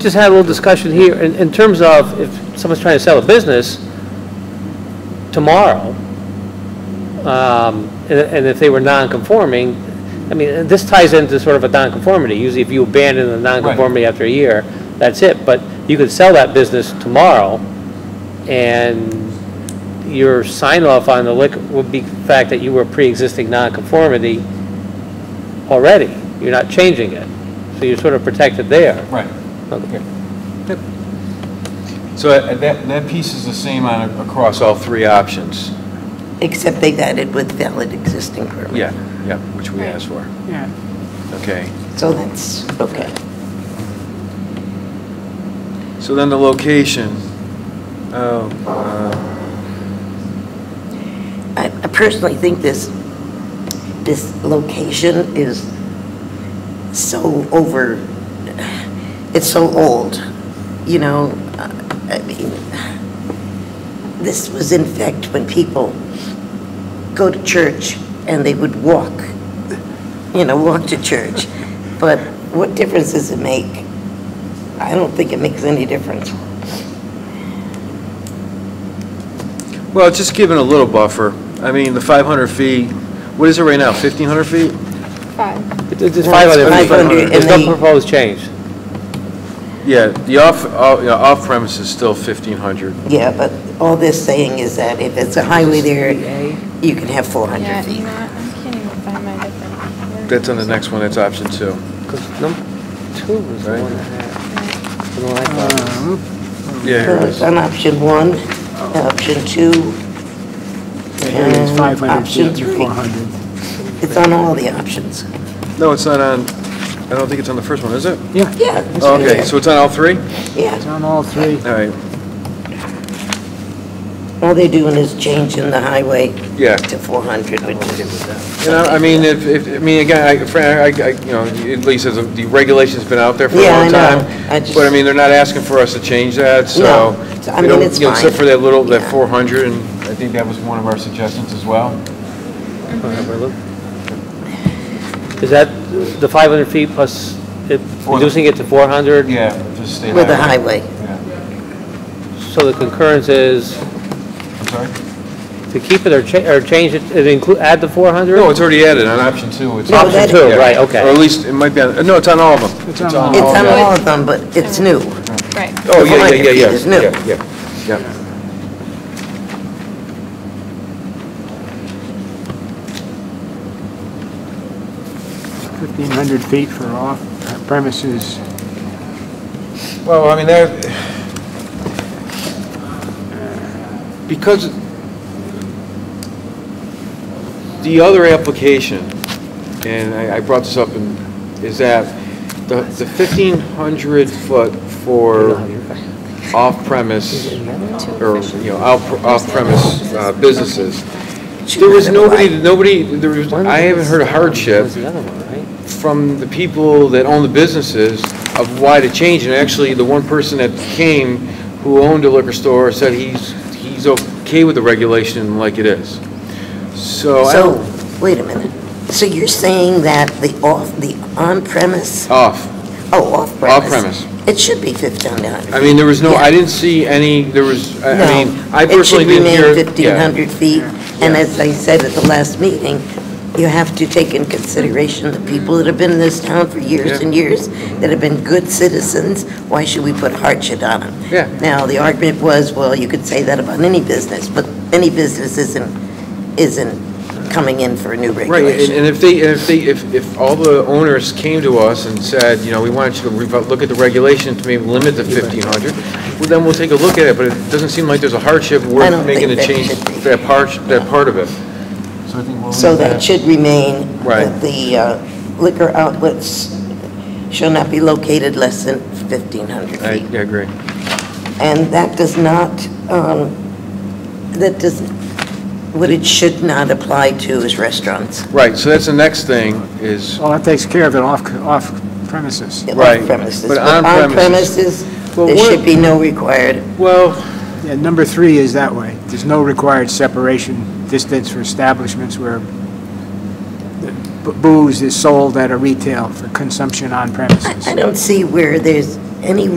Just had a little discussion here, in, in terms of if someone's trying to sell a business tomorrow, um, and, and if they were non-conforming, I mean, this ties into sort of a non-conformity. Usually if you abandon the non-conformity after a year, that's it. But you could sell that business tomorrow, and your sign-off on the liquor would be the fact that you were pre-existing non-conformity already. You're not changing it. So you're sort of protected there. Right. Okay. So uh, that, that piece is the same on, across all three options. Except they've added with valid existing permit. Yeah, yeah, which we asked for. Yeah, Okay. So that's, okay. So then the location, oh, uh, I I personally think this, this location is so over, it's so old, you know? I mean, this was in fact when people go to church and they would walk, you know, walk to church. But what difference does it make? I don't think it makes any difference. well, it's just giving a little buffer. I mean, the 500 feet, what is it right now, 1,500 feet? Five. It's- It's Well, five it's other five people. under There's and no they- proposed change. Yeah, the off, off- yeah, off premise is still 1,500. Yeah, but all this saying is that if it's a highway there, you can have 400 Yeah, feet. you know what? I can't even find my different. words. That's on the next one, that's option two. 'Cause number two was the Right. one that had, the one I thought was- Yeah, here So it it's is. on option one, option two. here it is, and 500 Um, option feet to three. 400. It's on all the options. No, it's not on, I don't think it's on the first one, is it? Yeah, Yeah. it's Oh, Okay, there. so it's on all three? it's Yeah, on all three. All right, all they're doing is changing the highway yeah. to 400, which is... You know, I mean, if, if, I mean, again, I, Fran, I, I- you know, at least as of- the regulation's been out there for a Yeah, I long know. time. I just- But I mean, they're not asking for us to change that, so. No. I we mean, don't- it's you know, Except fine. for that little, that Yeah. four hundred, and I think that was one of our suggestions as well. whatever, look. Is that the 500 feet plus it- Four- reducing it to 400? Yeah, just stay. With the high. highway. Yeah, So the concurrence is I'm sorry? to keep it or cha, or change it, it include, add the 400? No, it's already added on option two. It's- No, Option that- two, Yeah. right, okay. Or at least, it might be on, no, it's on all of them. It's on all of It's on Oh, yeah. all of them, but it's new. Right. Oh, yeah, Behind yeah, it, yeah, it's yeah, new. yeah, yeah, yeah. Fifteen hundred feet for off uh, premises. Well, I mean, there, because the other application, and I I brought this up, in- is that the the 1,500 foot for off-premise, or, you know, out- off-premise uh, businesses, there was nobody, nobody, there was, I haven't heard a hardship Was the other one, right? from the people that own the businesses of why to change. And actually, the one person that came who owned a liquor store said he's, he's okay with the regulation like it is. So, I So, don't- wait a minute. So you're saying that the off, the on-premise, off. oh, off-premise? Off-premise. It should be 1,500. I mean, there was no, I Yeah. didn't see any, there was, I I mean, No, I personally didn't hear. It should yeah. remain 1,500 feet, and as I said at the last meeting, you have to take in consideration the people that have been in this town for years Yeah. and years, that have been good citizens, why should we put hardship on them? Yeah. Now, the argument was, well, you could say that about any business, but any business isn't, isn't coming in for a new Right, and regulation. and if they, and if they, if, if all the owners came to us and said, you know, we want you to revo- look at the regulation to maybe limit the 1,500, well, then we'll take a look at it, but it doesn't seem like there's a hardship don't worth making a think that change, should be. that part, that part of it. So I think we'll So that should remain Right. that the uh, liquor outlets shall not be located less than 1,500 feet. I I agree. And that does not, um, that does, what it should not apply to is restaurants, Right, so that's the next thing, is, Well, that takes care of it off, off premises. Right, off-premises. but on on-premises- premises, Well, there what- should be no required. well, Yeah, number three is that way. There's no required separation distance for establishments where b- booze is sold at a retail for consumption on premises. I I don't see where there's any